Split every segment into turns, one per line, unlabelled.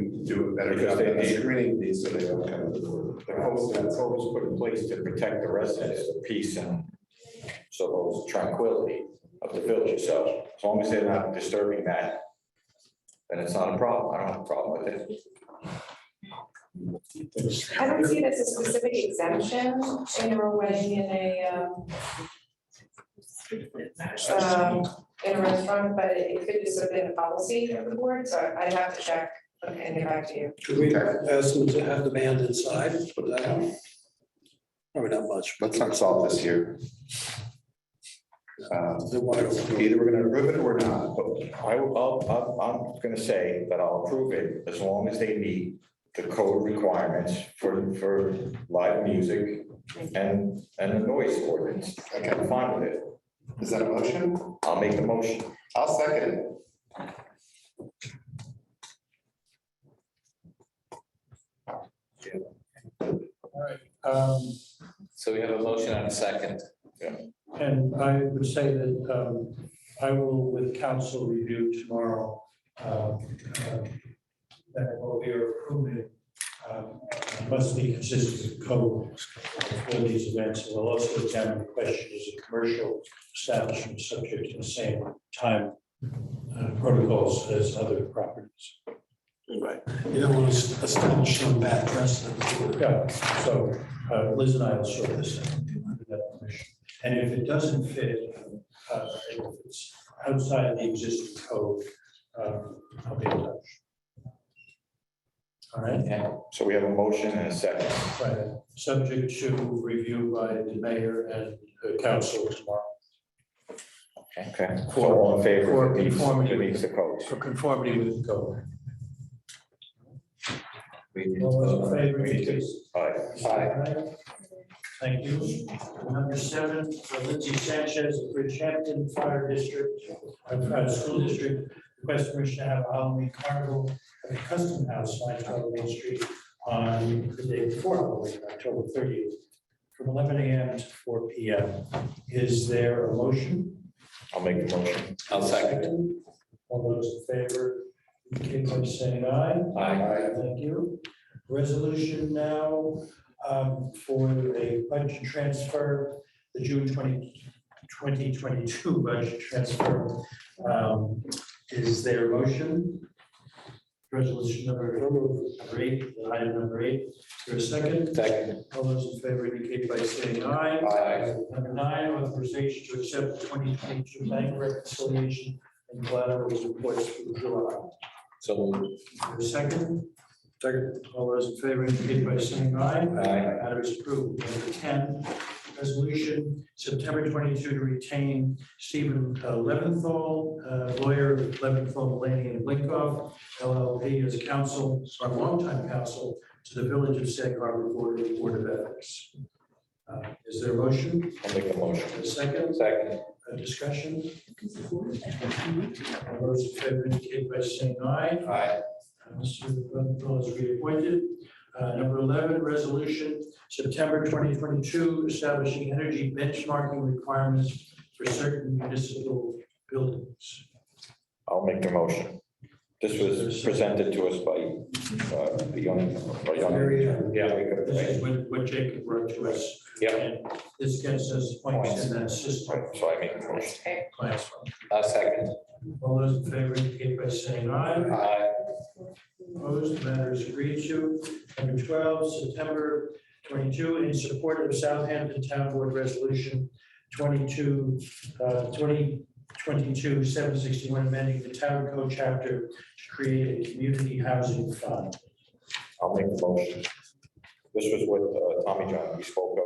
do a better
Because
job
they
of
need-
screening these so they don't come into the board.
The code, that code was put in place to protect the residents, the peace and so tranquility of the village itself. As long as they're not disturbing that, then it's not a problem. I don't have a problem with it.
I don't see it as a specific exemption, you know, when in a, um, um, in a restaurant, but it could just have been a policy of the board, so I'd have to check and get back to you.
Could we ask them to have the band inside, put that out? Probably not much.
Let's not solve this here. Um,
They're wide open.
Either we're gonna approve it or we're not, but
I, will I'm, I'm gonna say that I'll approve it as long as they meet the code requirements for, for live music and, and the noise ordinance. I'm fine with it.
is that a motion?
I'll make the motion.
I'll second it.
Um,
So we have a motion on a second.
and I would say that, um, I will with council review tomorrow, um, uh, that what we are approving, um, must be consistent with code for these events. We'll also examine the question, is a commercial establishment subject to the same time uh, protocols as other properties?
Right. You don't want to establish some bad precedent.
Yeah, so uh, Liz and I will sort this out under that permission. And if it doesn't fit, uh, if it's outside the existing code, um, I'll be in touch. All right,
So we have a motion and a second.
right, subject to review by the mayor and the council tomorrow
Okay, so all in favor,
For
of these-
conformity.
it meets the codes.
for conformity with the code.
We need to-
All those in favor,
we need to-
please.
all right.
Aye. Thank you. Number seven, for Lindsay Sanchez, of Bridgehampton Fire District, uh, uh, School District, request permission to have a Halloween carnival at the Custom House, five twelve Main Street, on the day before Halloween, October thirtieth, from eleven AM to four PM. Is there a motion?
I'll make the motion.
I'll second.
All those in favor, indicate by saying aye.
Aye.
Thank you. Resolution now um, for a budget transfer, the June 20 2022 budget transfer. Um, Is there a motion? Resolution number number eight, item number eight, is there a second?
Second.
All those in favor indicate by saying aye.
Aye.
Number nine, authorization to accept the twenty twenty-two bank reconciliation and collateral reports for July.
So moved.
Is there a Second. Second. All those in favor indicate by saying aye.
Aye.
Matter is approved. Number ten, resolution, September twenty-two to retain Stephen uh, Leventhal, uh, lawyer of Leventhal, Laney and Blinkoff, LLP as counsel, our longtime counsel to the Village of Sag Harbor Board of Board of Ethics. Uh, Is there a motion?
I'll make the motion.
A second?
Second.
A Uh, discussion? All those in favor indicate by saying aye.
Aye.
Uh, Mr. Leventhal is reappointed. Uh, Number 11, resolution, September 2022, establishing energy benchmarking requirements for certain municipal buildings.
I'll make the motion. This was presented to us by, uh, the young, by young. Yeah. we could-
uh, This is
right.
what what Jacob wrote to us.
Yep.
And This gets us points in that system.
Right, So I make the motion.
Okay.
Class.
I'll second.
All those in favor indicate by saying aye.
Aye.
Opposed, matter is agreed to. Number twelve, September twenty-two, in support of Southampton Town Board Resolution 22, uh, 2022 seven sixty-one, amending the town code chapter to create a community housing fund.
I'll make the motion. This was what uh, Tommy John, we spoke of,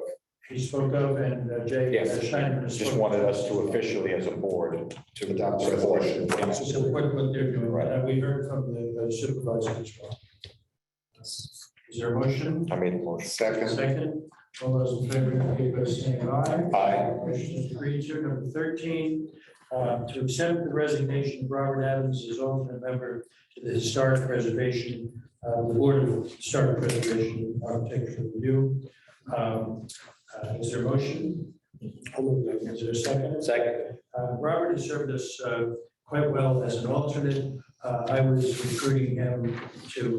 He spoke of, and uh, Jay
Yes.
Steinman has
just
spoken
wanted
of.
us to officially, as a board, to
Adopt
adopt
the
the
resolution.
So
resolution.
Support what they're doing,
Right.
and we heard from the supervisor as well. Is there a motion?
I made the motion.
Second,
Second, all those in favor, indicate by saying aye.
Aye.
Motion is agreed to. Number thirteen, uh, to accept the resignation of Robert Adams as alternate member to the Historic Preservation, uh, Board of Historic Preservation and Architecture Review. Um, uh, Is there a motion? Is there a second?
Second.
Uh, Robert has served us uh, quite well as an alternate. Uh, I was recruiting him to